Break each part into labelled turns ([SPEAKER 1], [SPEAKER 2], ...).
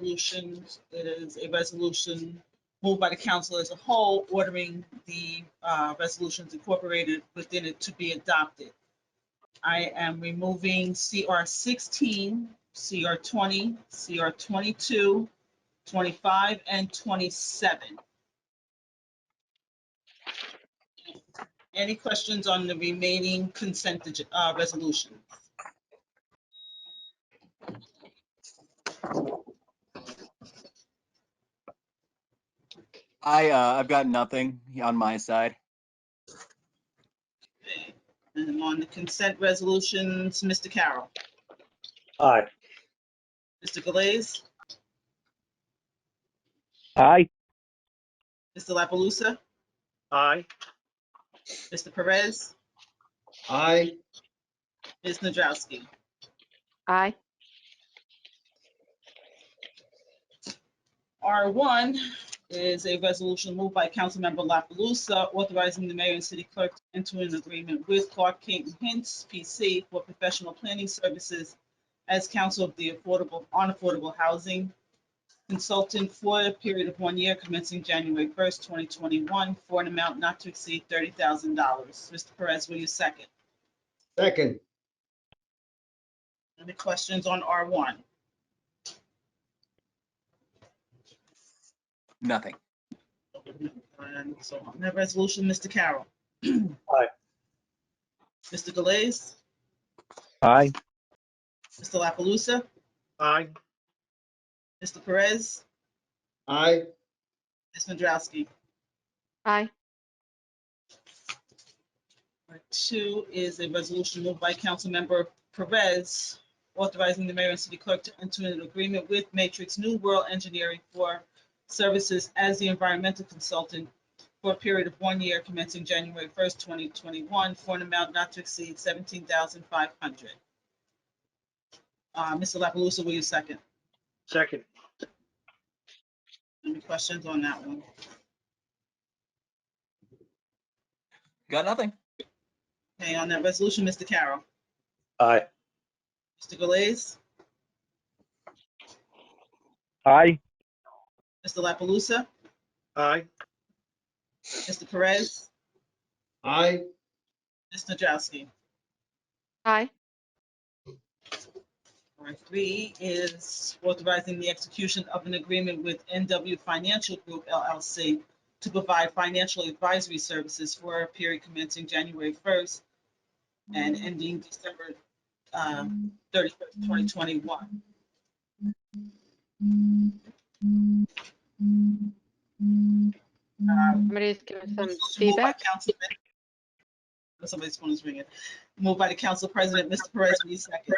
[SPEAKER 1] resolution. It is a resolution moved by the council as a whole, ordering the uh, resolutions incorporated within it to be adopted. I am removing CR sixteen, CR twenty, CR 22, 25, and twenty-seven. Any questions on the remaining consent ag- uh, resolution?
[SPEAKER 2] I, uh, I've got nothing on my side.
[SPEAKER 1] And on the consent resolutions, Mr. Carroll,
[SPEAKER 3] Aye.
[SPEAKER 1] Mr. Galais,
[SPEAKER 4] Aye.
[SPEAKER 1] Mr. La Palusa,
[SPEAKER 3] Aye.
[SPEAKER 1] Mr. Perez,
[SPEAKER 3] Aye.
[SPEAKER 1] Ms. Nadrowski.
[SPEAKER 5] Aye.
[SPEAKER 1] R1 is a resolution moved by Councilmember La Palusa authorizing the mayor and city clerk to enter an agreement with Clark King Hints PC for professional planning services as counsel of the affordable, on affordable housing consultant for a period of one year commencing January 1st, 2021, for an amount not to exceed $30,000. Mr. Perez, will you second?
[SPEAKER 3] Second.
[SPEAKER 1] Any questions on R1?
[SPEAKER 2] Nothing.
[SPEAKER 1] And so on that resolution, Mr. Carroll.
[SPEAKER 3] Aye.
[SPEAKER 1] Mr. Galais,
[SPEAKER 4] Aye.
[SPEAKER 1] Mr. La Palusa,
[SPEAKER 3] Aye.
[SPEAKER 1] Mr. Perez,
[SPEAKER 3] Aye.
[SPEAKER 1] Ms. Nadrowski.
[SPEAKER 5] Aye.
[SPEAKER 1] Number Two is a resolution moved by Councilmember Perez authorizing the mayor and city clerk to enter an agreement with Matrix New World Engineering for services as the environmental consultant for a period of one year commencing January 1st, 2021, for an amount not to exceed $17,500. Uh, Mr. La Palusa, will you second?
[SPEAKER 3] Second.
[SPEAKER 1] Any questions on that one?
[SPEAKER 2] Got nothing.
[SPEAKER 1] Okay, on that resolution, Mr. Carroll,
[SPEAKER 3] Aye.
[SPEAKER 1] Mr. Galais,
[SPEAKER 4] Aye.
[SPEAKER 1] Mr. La Palusa,
[SPEAKER 3] Aye.
[SPEAKER 1] Mr. Perez,
[SPEAKER 3] Aye.
[SPEAKER 1] Ms. Nadrowski.
[SPEAKER 5] Aye.
[SPEAKER 1] Number three is authorizing the execution of an agreement with NW Financial Group LLC to provide financial advisory services for a period commencing January 1st and ending December um, 31st, 2021. Um,
[SPEAKER 5] Somebody's giving some
[SPEAKER 1] Moved by
[SPEAKER 5] feedback.
[SPEAKER 1] Councilman- Oh, Somebody's phone is ringing. Moved by the council president, Mr. Perez, will you second?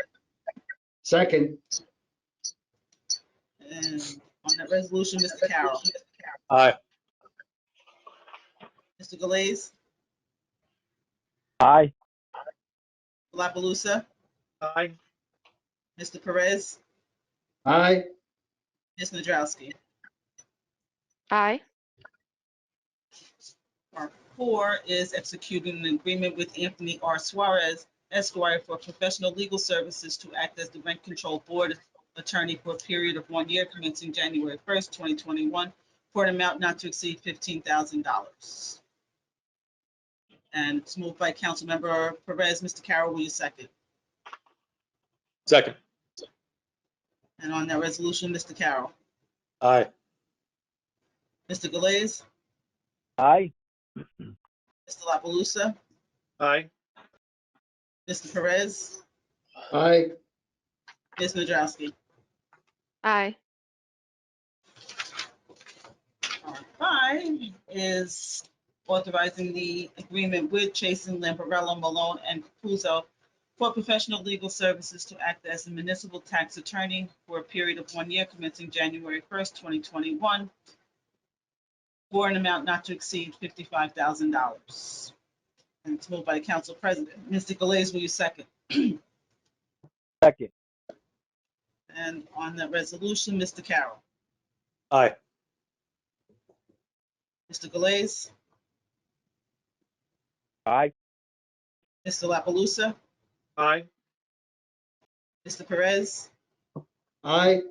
[SPEAKER 3] Second.
[SPEAKER 1] And on that resolution, Mr. Carroll.
[SPEAKER 3] Aye.
[SPEAKER 1] Mr. Galais,
[SPEAKER 4] Aye.
[SPEAKER 1] La Palusa,
[SPEAKER 3] Aye.
[SPEAKER 1] Mr. Perez,
[SPEAKER 3] Aye.
[SPEAKER 1] Ms. Nadrowski.
[SPEAKER 5] Aye.
[SPEAKER 1] Part four is executing an agreement with Anthony R. Suarez Esquire for professional legal services to act as the rent control board attorney for a period of one year commencing January first, twenty twenty-one, for an amount not to exceed fifteen thousand dollars. And it's moved by Councilmember Perez. Mr. Carroll, will you second?
[SPEAKER 3] Second.
[SPEAKER 1] And on that resolution, Mr. Carroll,
[SPEAKER 3] Aye.
[SPEAKER 1] Mr. Galais,
[SPEAKER 4] Aye.
[SPEAKER 1] Mr. La Palusa,
[SPEAKER 3] Aye.
[SPEAKER 1] Mr. Perez,
[SPEAKER 3] Aye.
[SPEAKER 1] Ms. Nadrowski.
[SPEAKER 5] Aye.
[SPEAKER 1] Five is authorizing the agreement with Chasen, Lamparello, Malone, and Capuzzo for professional legal services to act as a municipal tax attorney for a period of one year commencing January 1st, 2021, for an amount not to exceed $55,000. And it's moved by the council president. Mr. Galais, will you second?
[SPEAKER 4] Second.
[SPEAKER 1] And on the resolution, Mr. Carroll.
[SPEAKER 3] Aye.
[SPEAKER 1] Mr. Galais,
[SPEAKER 4] Aye.
[SPEAKER 1] Mr. La Palusa,
[SPEAKER 3] Aye.
[SPEAKER 1] Mr. Perez,
[SPEAKER 3] Aye.